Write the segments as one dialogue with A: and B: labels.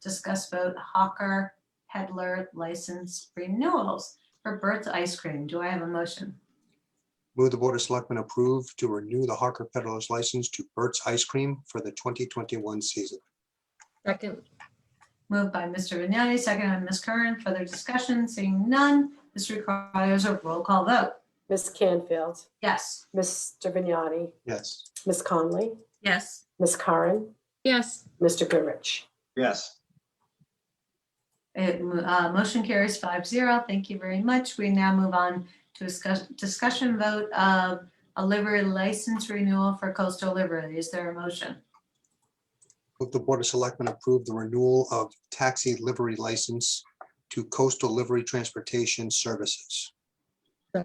A: discuss vote Hawker Peddler license renewals for Bert's Ice Cream. Do I have a motion?
B: Move the Board of Selectmen approve to renew the Hawker Peddler's license to Burt's Ice Cream for the 2021 season.
C: Second,
A: Moved by Mr. Vignani, second by Ms. Curran. Further discussion, seeing none. This requires a roll call vote.
D: Miss Canfield,
A: Yes.
D: Mr. Vignani,
B: Yes.
D: Miss Conley,
E: yes,
D: Miss Karen,
C: yes,
D: Mr. Goodrich.
F: yes,
A: It, mo- uh, motion carries five zero. Thank you very much. We now move on to discuss, discussion vote of a livery license renewal for coastal livery. Is there a motion?
B: Move the Board of Selectmen approve the renewal of taxi livery license to Coastal Livery Transportation Services.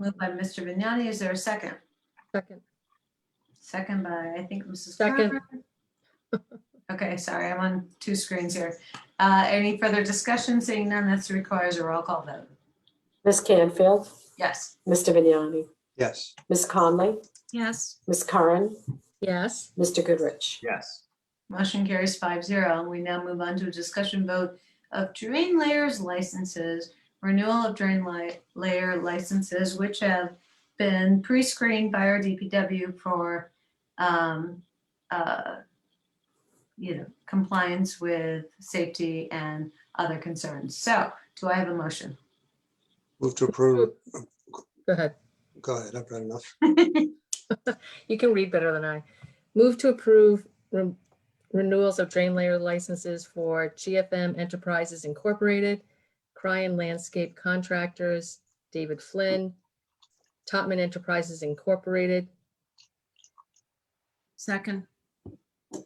A: Moved by Mr. Vignani. Is there a second?
C: second,
A: Second by, I think, Mrs.
C: Second.
A: Carver. Okay, sorry, I'm on two screens here. Uh, any further discussion? Seeing none, this requires a roll call vote.
D: Miss Canfield,
A: Yes.
D: Mr. Vignani,
B: Yes.
D: Miss Conley,
E: yes,
D: Miss Karen,
C: yes,
D: Mr. Goodrich.
F: yes,
A: Motion carries five zero. We now move on to a discussion vote of drain layers licenses, renewal of drain li- layer licenses, which have been pre-screened by our DPW for, um, uh, you know, compliance with safety and other concerns. So do I have a motion?
B: Move to approve.
C: go ahead.
B: Go ahead. I've read enough.
C: You can read better than I. Move to approve re- renewals of drain layer licenses for GFM Enterprises Incorporated, Cryan Landscape Contractors, David Flynn, Topman Enterprises Incorporated,
E: second,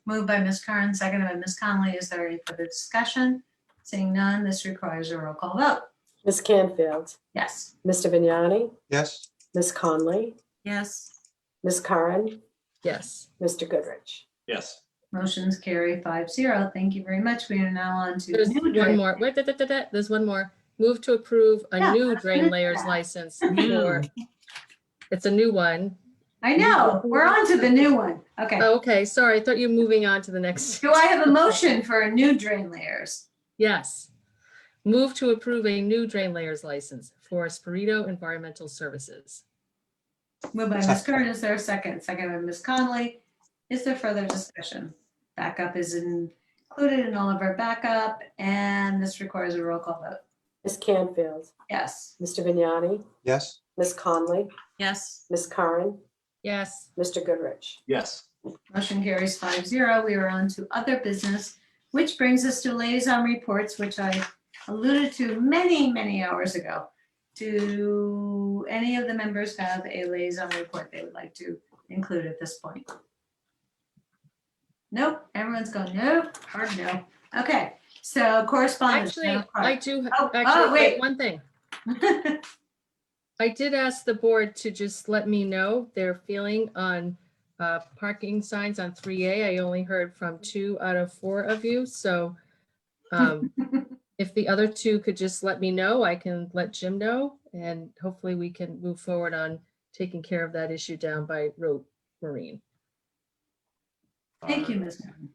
A: Moved by Ms. Curran, seconded by Ms. Conley. Is there any further discussion? Seeing none, this requires a roll call vote.
D: Miss Canfield,
A: Yes.
D: Mr. Vignani,
B: Yes.
D: Miss Conley,
E: yes,
D: Miss Karen,
C: yes,
D: Mr. Goodrich.
F: yes,
A: Motion's carry five zero. Thank you very much. We are now on to.
C: There's
A: new
C: one
A: drain-
C: more, wait, da, da, da, da, there's one more. Move to approve
A: Yeah,
C: a new
A: gonna
C: drain
A: do
C: layers
A: that.
C: license for, it's a new one.
A: I know, we're on to the new one. Okay.
C: Oh, Okay, sorry, I thought you were moving on to the next.
A: Do I have a motion for a new drain layers?
C: Yes. Move to approve a new drain layers license for Espirito Environmental Services.
A: Moved by Ms. Curran, is there a second? Second by Ms. Conley. Is there further discussion? Backup is in- included in all of our backup, and this requires a roll call vote.
D: Miss Canfield,
A: Yes.
D: Mr. Vignani,
B: Yes.
D: Miss Conley,
E: yes,
D: Miss Karen,
C: Yes,
D: Mr. Goodrich.
F: yes,
A: Motion carries five zero. We are on to other business, which brings us to liaison reports, which I alluded to many, many hours ago. Do any of the members have a liaison report they would like to include at this point? Nope, everyone's going, nope, hard no. Okay, so correspondence.
C: actually,
A: Madam
C: I
A: Clerk.
C: do,
A: Oh, oh,
C: actually,
A: wait.
C: wait, one thing. I did ask the board to just let me know their feeling on uh, parking signs on 3A. I only heard from two out of four of you, so um, if the other two could just let me know, I can let Jim know, and hopefully we can move forward on taking care of that issue down by Road Marine.
A: Thank you, Ms. Norton.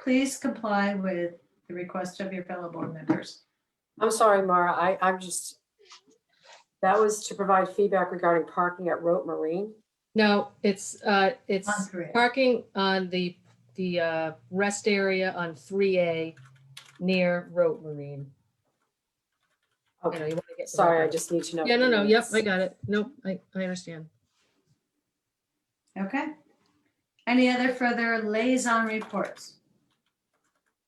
A: Please comply with the request of your fellow board members.
D: I'm sorry, Mara, I, I'm just, that was to provide feedback regarding parking at Rote Marine.
C: No, it's, uh, it's
A: On three.
C: parking on the, the, uh, rest area on three A near Rote Marine. You know,
D: Okay,
C: you wanna get the
D: sorry, I
C: record.
D: just need to know.
C: Yeah, no, no, yep, I
D: Yes.
C: got it. Nope, I, I understand.
A: Okay. Any other further liaison reports?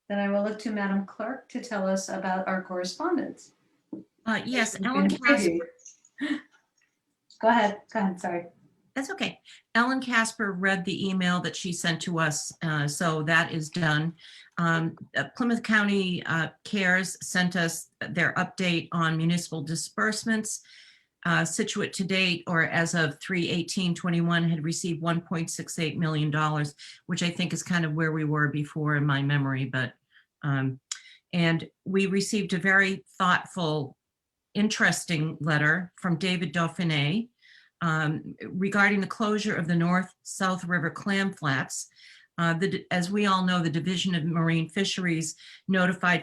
A: Then I will look to Madam Clerk to tell us about our correspondence.
E: uh, yes,
A: We've
E: Ellen
A: been
E: Casper,
A: previewed. Go ahead, go ahead, sorry.
E: that's okay. Ellen Casper read the email that she sent to us, uh, so that is done. Um, uh, Plymouth County uh, Cares sent us their update on municipal disbursements. Uh, Situate to date, or as of 3/18/21, had received $1.68 million, which I think is kind of where we were before in my memory, but, um, and we received a very thoughtful, interesting letter from David Dauphiné um, regarding the closure of the North South River clam flats. Uh, the, as we all know, the Division of Marine Fisheries notified